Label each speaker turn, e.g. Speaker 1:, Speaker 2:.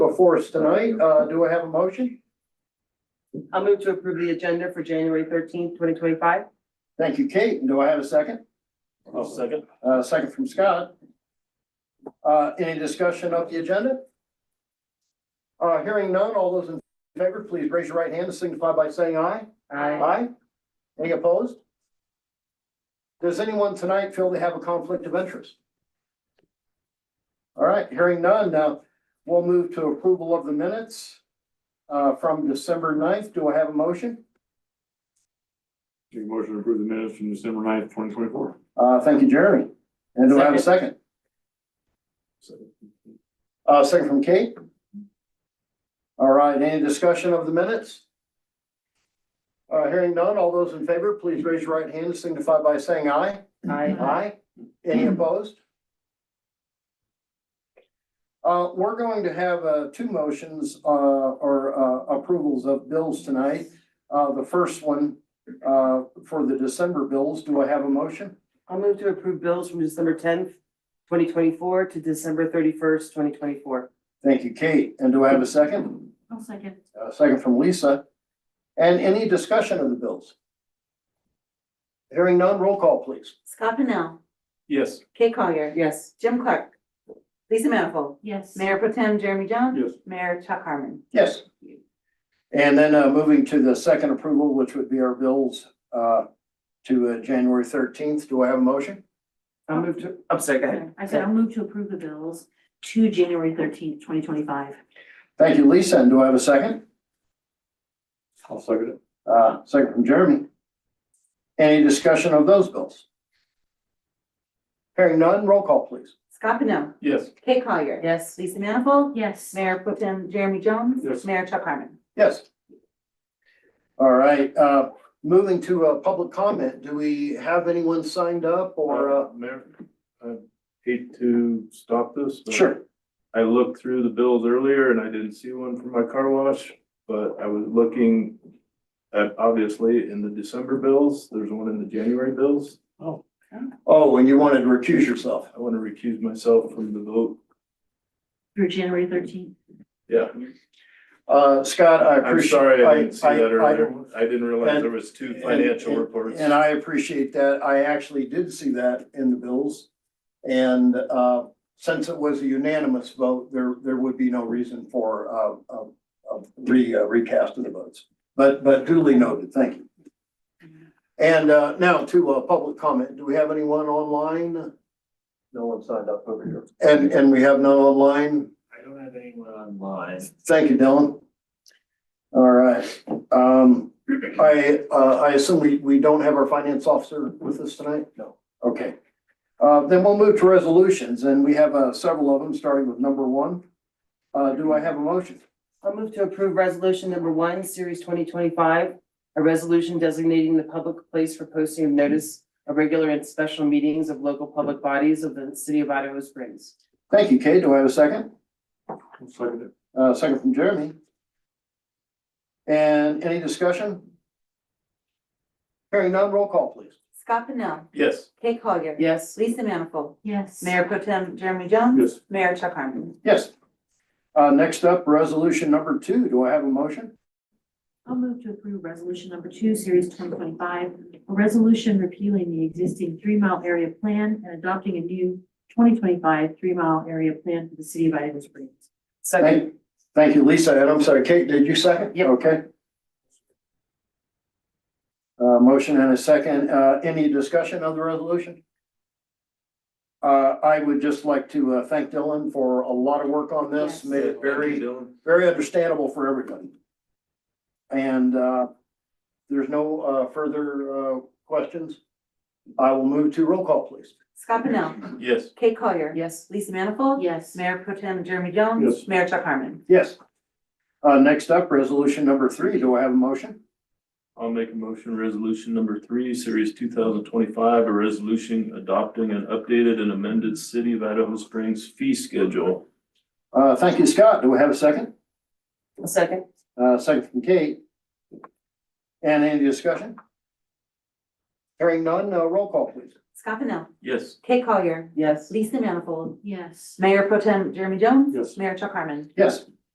Speaker 1: before us tonight. Uh, do I have a motion?
Speaker 2: I'll move to approve the agenda for January thirteenth, twenty twenty-five.
Speaker 1: Thank you, Kate. And do I have a second?
Speaker 3: I'll second.
Speaker 1: Uh, second from Scott. Uh, any discussion of the agenda? Uh, hearing none, all those in favor, please raise your right hand and signify by saying aye. Aye. Any opposed? Does anyone tonight feel they have a conflict of interest? All right, hearing none, now we'll move to approval of the minutes uh, from December 9th. Do I have a motion?
Speaker 3: Make a motion to approve the minutes from December ninth, twenty twenty-four.
Speaker 1: Uh, Thank you, Jeremy. And do I have a second? Uh, Second from Kate. All right, any discussion of the minutes? Uh, Hearing none, all those in favor, please raise your right hand and signify by saying aye.
Speaker 2: Aye.
Speaker 1: Aye. Any opposed? Uh, we're going to have, uh, two motions, uh, or, uh, approvals of bills tonight. Uh, the first one, uh, for the December bills, do I have a motion?
Speaker 2: I'll move to approve bills from December tenth, twenty twenty-four to December thirty-first, twenty twenty-four.
Speaker 1: Thank you, Kate. And do I have a second?
Speaker 4: I'll second.
Speaker 1: A second from Lisa. And any discussion of the bills? Hearing none, roll call, please.
Speaker 5: Scott Pennell,
Speaker 3: Yes.
Speaker 5: Kate Collier,
Speaker 2: Yes.
Speaker 5: Jim Clark, Lisa Manifold,
Speaker 4: Yes.
Speaker 5: Mayor Pro Tem Jeremy Jones.
Speaker 3: Yes.
Speaker 5: Mayor Chuck Harmon.
Speaker 1: Yes. And then uh, moving to the second approval, which would be our bills uh, to uh, January thirteenth. Do I have a motion?
Speaker 2: I'll move to, I'm sorry, go ahead.
Speaker 4: I said I'll move to approve the bills to January thirteenth, twenty twenty-five.
Speaker 1: Thank you, Lisa. And do I have a second?
Speaker 3: I'll second it.
Speaker 1: Uh, Second from Jeremy. Any discussion of those bills? Hearing none, roll call, please.
Speaker 5: Scott Pennell,
Speaker 3: Yes.
Speaker 5: Kate Collier.
Speaker 2: Yes.
Speaker 5: Lisa Manifold,
Speaker 4: Yes.
Speaker 5: Mayor Pro Tem Jeremy Jones.
Speaker 3: Yes.
Speaker 5: Mayor Chuck Harmon.
Speaker 1: Yes. All right, uh, moving to uh, public comment. Do we have anyone signed up or? uh,
Speaker 3: Uh, Mayor, I hate to stop this, but.
Speaker 1: Sure.
Speaker 3: I looked through the bills earlier and I didn't see one for my car wash, but I was looking at, obviously, in the December bills, there's one in the January bills.
Speaker 1: Oh, and you wanted to recuse yourself.
Speaker 3: I want to recuse myself from the vote.
Speaker 4: Through January thirteenth.
Speaker 3: Yeah,
Speaker 1: Uh, Scott, I
Speaker 3: I'm
Speaker 1: appreciate.
Speaker 3: sorry, I didn't see
Speaker 1: I-
Speaker 3: that
Speaker 1: I- I-
Speaker 3: earlier. I didn't realize
Speaker 1: And-
Speaker 3: there was two
Speaker 1: and-
Speaker 3: financial
Speaker 1: and-
Speaker 3: reports.
Speaker 1: And I appreciate that. I actually did see that in the bills. And uh, since it was a unanimous vote, there, there would be no reason for uh, uh, uh, re, uh, recast of the votes. But, but duly noted, thank you. And uh, now to uh, public comment. Do we have anyone online?
Speaker 6: No one signed up over here.
Speaker 1: And, and we have none online?
Speaker 6: I don't have anyone online.
Speaker 1: Thank you, Dylan. All right, um, I, uh, I assume we, we don't have our finance officer with us tonight? No. Okay. Uh, then we'll move to resolutions and we have, uh, several of them, starting with number one. Uh, do I have a motion?
Speaker 2: I'll move to approve resolution number one, series twenty twenty-five, a resolution designating the public place for posting of notice of regular and special meetings of local public bodies of the city of Idaho Springs.
Speaker 1: Thank you, Kate. Do I have a second?
Speaker 3: I'll second it.
Speaker 1: Uh, second from Jeremy. And any discussion? Hearing none, roll call please.
Speaker 5: Scott Pennell,
Speaker 3: Yes.
Speaker 5: Kate Collier.
Speaker 2: Yes.
Speaker 5: Lisa Manifold,
Speaker 4: Yes.
Speaker 5: Mayor Pro Tem Jeremy Jones.
Speaker 3: Yes.
Speaker 5: Mayor Chuck Harmon.
Speaker 1: Yes. Uh, next up, resolution number two. Do I have a motion?
Speaker 4: I'll move to approve resolution number two, series twenty twenty-five, a resolution repealing the existing three-mile area plan and adopting a new twenty twenty-five three-mile area plan for the city of Idaho Springs.
Speaker 2: Second.
Speaker 1: Thank, thank you, Lisa, and I'm sorry, Kate, did you second?
Speaker 2: Yep.
Speaker 1: Okay. Uh, motion and a second, uh, any discussion of the resolution? Uh, I would just like to, uh, thank Dylan for a lot of work on this,
Speaker 5: Yes.
Speaker 1: made it very,
Speaker 3: Dylan.
Speaker 1: very understandable for everybody. And, uh, there's no, uh, further, uh, questions. I will move to roll call, please.
Speaker 5: Scott Pennell,
Speaker 3: Yes.
Speaker 5: Kate Collier.
Speaker 2: Yes.
Speaker 5: Lisa Manifold,
Speaker 4: Yes.
Speaker 5: Mayor Pro Tem Jeremy Jones.
Speaker 3: Yes.
Speaker 5: Mayor Chuck Harmon.
Speaker 1: Yes. Uh, next up, resolution number three, do I have a motion?
Speaker 3: I'll make a motion, resolution number three, series two thousand twenty-five, a resolution adopting an updated and amended City of Idaho Springs fee schedule.
Speaker 1: Uh, thank you, Scott. Do we have a second?
Speaker 2: Second.
Speaker 1: Uh, second from Kate. And any discussion? Hearing none, uh, roll call please.
Speaker 5: Scott Pennell,
Speaker 3: Yes.
Speaker 5: Kate Collier.
Speaker 2: Yes.
Speaker 5: Lisa Manifold,
Speaker 4: Yes.
Speaker 5: Mayor Pro Tem Jeremy Jones.
Speaker 3: Yes.
Speaker 5: Mayor Chuck Harmon.
Speaker 1: Yes.